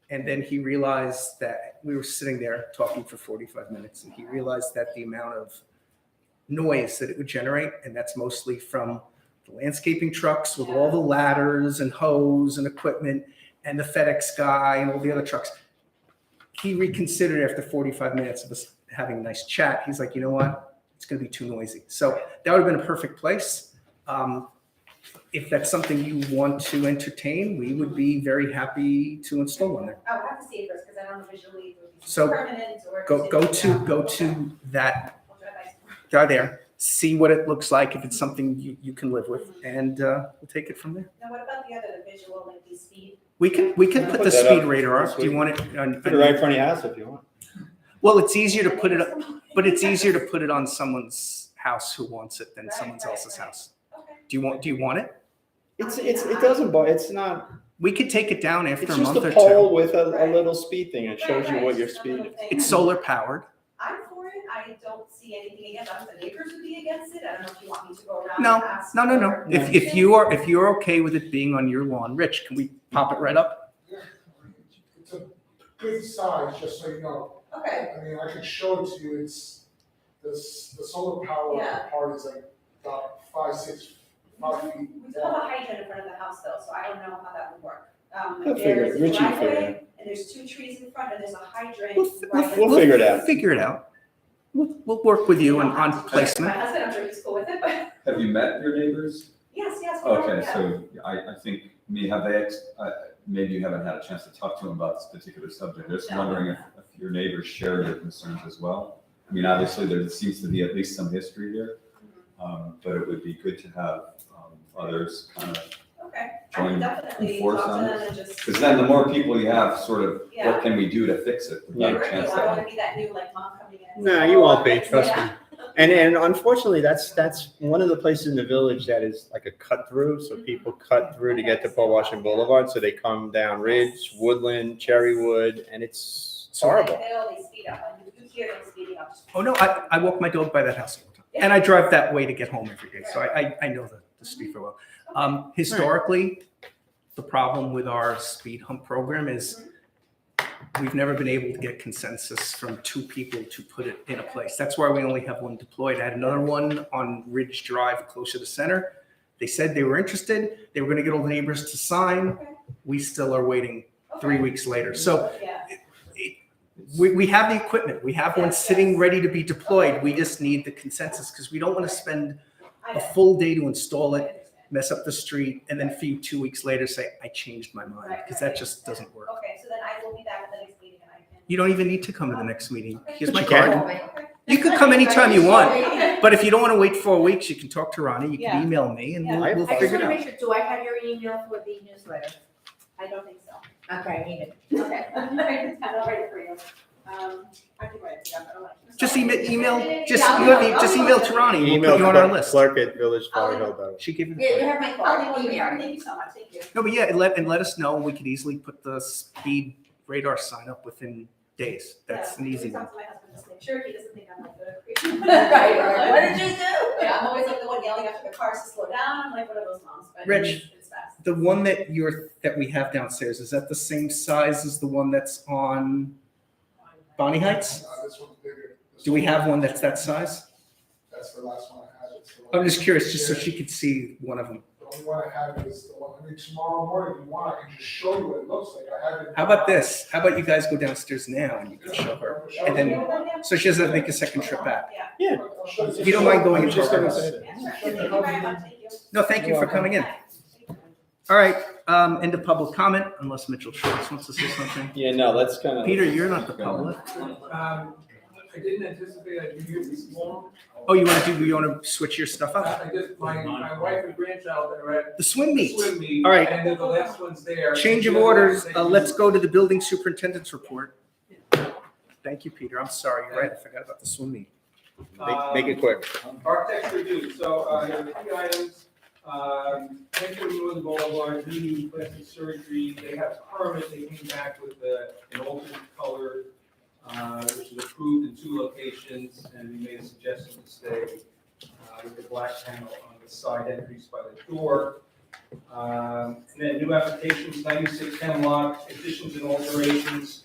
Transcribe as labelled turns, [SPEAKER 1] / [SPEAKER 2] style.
[SPEAKER 1] And then he realized that we were sitting there talking for 45 minutes, and he realized that the amount of noise that it would generate, and that's mostly from the landscaping trucks with all the ladders and hose and equipment, and the FedEx guy and all the other trucks. He reconsidered after 45 minutes of us having a nice chat. He's like, you know what? It's going to be too noisy. So that would have been a perfect place. Um, if that's something you want to entertain, we would be very happy to install one there.
[SPEAKER 2] I would have to see it first, because I don't know visually if it would be
[SPEAKER 1] So,
[SPEAKER 2] permanent or.
[SPEAKER 1] Go go to go
[SPEAKER 2] Okay.
[SPEAKER 1] to that
[SPEAKER 2] We'll drive by tomorrow.
[SPEAKER 1] guy there. See what it looks like. If it's something you, you can live with, and uh, we'll take it from there.
[SPEAKER 2] Now, what about the other, the visual, like the speed?
[SPEAKER 1] We can we can
[SPEAKER 3] Put
[SPEAKER 1] put the
[SPEAKER 3] that
[SPEAKER 1] speed
[SPEAKER 3] up
[SPEAKER 1] radar
[SPEAKER 3] this
[SPEAKER 1] up. Do you
[SPEAKER 3] week.
[SPEAKER 1] want it? On,
[SPEAKER 3] Put it right in front of your house if you want.
[SPEAKER 1] Well, it's easier to put it up.
[SPEAKER 2] up,
[SPEAKER 1] But it's easier to put it on someone's house who wants it than
[SPEAKER 2] Right,
[SPEAKER 1] someone
[SPEAKER 2] right,
[SPEAKER 1] else's
[SPEAKER 2] right.
[SPEAKER 1] house.
[SPEAKER 2] Okay,
[SPEAKER 1] Do you want, do you want it?
[SPEAKER 3] It's, it's, it doesn't, bo- it's not,
[SPEAKER 1] We could take it down after
[SPEAKER 3] it's
[SPEAKER 1] a
[SPEAKER 3] just
[SPEAKER 1] month
[SPEAKER 3] a
[SPEAKER 1] or two.
[SPEAKER 3] pole with a, a
[SPEAKER 2] Right.
[SPEAKER 3] little speed thing. It shows you
[SPEAKER 2] Right,
[SPEAKER 3] what
[SPEAKER 2] right,
[SPEAKER 3] your
[SPEAKER 2] just another
[SPEAKER 3] speed is.
[SPEAKER 2] thing.
[SPEAKER 1] It's solar powered.
[SPEAKER 2] I'm for it, I don't see anything against, I don't know if the neighbors would be against it, I don't know if you want me to go around
[SPEAKER 1] No,
[SPEAKER 2] and ask.
[SPEAKER 1] No, no, no.
[SPEAKER 2] for-
[SPEAKER 1] If, if you are, if you're okay with it being on your lawn, Rich, can we pop it right up?
[SPEAKER 4] It's a good size, just so you know.
[SPEAKER 2] Okay,
[SPEAKER 4] I mean, I could show it to you, it's, this, the solar power
[SPEAKER 2] Yeah.
[SPEAKER 4] part is like about five, six, five feet.
[SPEAKER 2] we still have a hydrant in front of the house though, so I don't know how that would work. Um,
[SPEAKER 3] He'll figure
[SPEAKER 2] there's
[SPEAKER 3] it.
[SPEAKER 2] a
[SPEAKER 3] Richie will figure it
[SPEAKER 2] driveway, and there's two trees in front, and there's a hydrant.
[SPEAKER 1] We'll-
[SPEAKER 2] right in
[SPEAKER 3] we'll
[SPEAKER 2] front.
[SPEAKER 3] figure it out.
[SPEAKER 1] Figure it out. We'll, we'll work with you on, on
[SPEAKER 2] My
[SPEAKER 1] placement.
[SPEAKER 2] husband, I'm sure he's cool with it, but,
[SPEAKER 5] Have you met your neighbors?
[SPEAKER 2] yes, yes, we are,
[SPEAKER 5] Okay,
[SPEAKER 2] yeah.
[SPEAKER 5] so I, I think, I mean, have they, ex- uh, maybe you haven't had a chance to talk to them about this particular subject. I'm Just
[SPEAKER 2] No.
[SPEAKER 5] wondering if, if your neighbors share your concerns as well. I mean, obviously, there seems to be at least some history here,
[SPEAKER 2] Mm-hmm.
[SPEAKER 5] um, but it would be good to have, um, others kind of,
[SPEAKER 2] Okay, I
[SPEAKER 5] Join
[SPEAKER 2] can definitely
[SPEAKER 5] and force
[SPEAKER 2] talk to
[SPEAKER 5] on
[SPEAKER 2] them and just.
[SPEAKER 5] because then the more people you have, sort of,
[SPEAKER 2] Yeah.
[SPEAKER 5] what can we do to fix it?
[SPEAKER 2] Yeah,
[SPEAKER 5] Without a
[SPEAKER 2] right, you
[SPEAKER 5] chance
[SPEAKER 2] know, I
[SPEAKER 5] to-
[SPEAKER 2] wanna be that new like mom coming in.
[SPEAKER 3] No, you won't be,
[SPEAKER 2] Yeah.
[SPEAKER 3] trust me. And, and unfortunately, that's, that's one of the places in the village that is like a cut through. So people cut through to get to Port Washington Boulevard. So they come down Ridge, Woodland, Cherrywood, and it's it's horrible.
[SPEAKER 2] They always speed up, like you- you hear them speeding up.
[SPEAKER 1] Oh, no, I, I walk my dog by that house all the time. And I drive that way to get home every day. So I, I, I know the, the speed very well. Um, historically, the problem with our speed hump program is we've never been able to get consensus from two people to put it in a place. That's why we only have one deployed. I had another one on Ridge Drive closer to center. They said they were interested. They were going to get all the neighbors to sign.
[SPEAKER 2] Okay.
[SPEAKER 1] We still are waiting three
[SPEAKER 2] Okay.
[SPEAKER 1] weeks later. So
[SPEAKER 2] Yeah,
[SPEAKER 1] we, we have the equipment. We have one
[SPEAKER 2] Yes,
[SPEAKER 1] sitting
[SPEAKER 2] yes.
[SPEAKER 1] ready to be deployed. We just need the consensus because we don't want to spend
[SPEAKER 2] I
[SPEAKER 1] a
[SPEAKER 2] know.
[SPEAKER 1] full day to install
[SPEAKER 2] I
[SPEAKER 1] it
[SPEAKER 2] understand.
[SPEAKER 1] mess up the street, and then for you two weeks later say, I changed my mind, because that just doesn't work.
[SPEAKER 2] Okay, so then I will be back at the next meeting and I can.
[SPEAKER 1] You don't even need to come to the next meeting. Here's
[SPEAKER 3] But
[SPEAKER 1] my
[SPEAKER 3] you can.
[SPEAKER 1] card. You could come anytime you want,
[SPEAKER 2] Okay.
[SPEAKER 1] but if you don't want to wait four weeks, you can talk to Ronnie, you
[SPEAKER 2] Yeah.
[SPEAKER 1] can email me, and
[SPEAKER 2] Yeah.
[SPEAKER 1] we'll, we'll
[SPEAKER 6] I just
[SPEAKER 1] figure it
[SPEAKER 6] want to
[SPEAKER 1] out.
[SPEAKER 6] make sure, do I have your email for the newsletter?
[SPEAKER 2] I don't think so.
[SPEAKER 6] Okay, I need it.
[SPEAKER 2] Okay, I'm not ready for you. Um, I can write it down, I don't like.
[SPEAKER 1] Just email, email, just,
[SPEAKER 2] Yeah, I'll
[SPEAKER 1] you have,
[SPEAKER 2] email.
[SPEAKER 1] e- just
[SPEAKER 2] I'll
[SPEAKER 1] email to Ronnie, we'll
[SPEAKER 3] Email
[SPEAKER 1] put you on our
[SPEAKER 3] clerk
[SPEAKER 1] list.
[SPEAKER 3] clerk at villagefargo.org.
[SPEAKER 1] She gave you
[SPEAKER 6] Yeah, you
[SPEAKER 1] the.
[SPEAKER 6] have my
[SPEAKER 2] I'll
[SPEAKER 6] card,
[SPEAKER 2] leave you,
[SPEAKER 6] email.
[SPEAKER 2] thank you so much, thank you.
[SPEAKER 1] No, but yeah, and let, and let us know, we could easily put the speed radar sign up within days. That's
[SPEAKER 2] Yeah,
[SPEAKER 1] an easy
[SPEAKER 2] I
[SPEAKER 1] one.
[SPEAKER 2] talked to my husband this day. Sure, he doesn't think I'm like good at creating.
[SPEAKER 6] Right, right. What did you do?
[SPEAKER 2] Yeah, I'm always like the one yelling after the cars to slow down, I'm like one of those moms, but it's
[SPEAKER 1] Rich.
[SPEAKER 2] it's fast.
[SPEAKER 1] The one that you're, that we have downstairs, is that the same size as the one that's on Bonnie Heights?
[SPEAKER 4] Uh, this one's bigger. This
[SPEAKER 1] Do we
[SPEAKER 4] one-
[SPEAKER 1] have one that's that size?
[SPEAKER 4] That's the last one I had. It's the one-
[SPEAKER 1] I'm just curious, just so she could see one of them.
[SPEAKER 4] The only one I have is the one, I mean, tomorrow morning, if you want, I can just show you what it looks like, I have it.
[SPEAKER 1] How about this? How about you guys go downstairs now and you can show her? and then- So she doesn't make a second trip back.
[SPEAKER 4] I'll show
[SPEAKER 1] If you don't mind going into our house.
[SPEAKER 2] Yeah, sure. Thank you very much. Thank you.
[SPEAKER 1] No, thank you for coming in.
[SPEAKER 2] Bye. Thank you.
[SPEAKER 1] All right, um, end of public comment, unless Mitchell Schwartz wants to say something.
[SPEAKER 3] Yeah, no, that's kind of.
[SPEAKER 1] Peter, you're not the public.
[SPEAKER 7] Um, I didn't anticipate I'd be here this long.
[SPEAKER 1] Oh, you wanna do, you wanna switch your stuff up?
[SPEAKER 7] Uh, I I just, my, my wife and grandchild are at
[SPEAKER 1] The swim
[SPEAKER 7] the
[SPEAKER 1] meet.
[SPEAKER 7] swim meet.
[SPEAKER 1] All right.
[SPEAKER 7] And they're the last ones there.
[SPEAKER 1] Change of
[SPEAKER 7] The other
[SPEAKER 1] orders,
[SPEAKER 7] ones that
[SPEAKER 1] uh,
[SPEAKER 7] you-
[SPEAKER 1] let's go to the building superintendent's report. Thank you, Peter. I'm sorry, you're right. I forgot about the swim meet.
[SPEAKER 3] Make- Make it quick.
[SPEAKER 7] Architects Um, review, so, uh, there are three items, um, Metro Northern Boulevard, new plastic surgery, they have permit, they came back with a, an alternate color, uh, which is approved in two locations, and we made a suggestion to stay, uh, with the black panel on the side entries by the door. Um, And then new applications, ninety-six Hemlock, additions and alterations,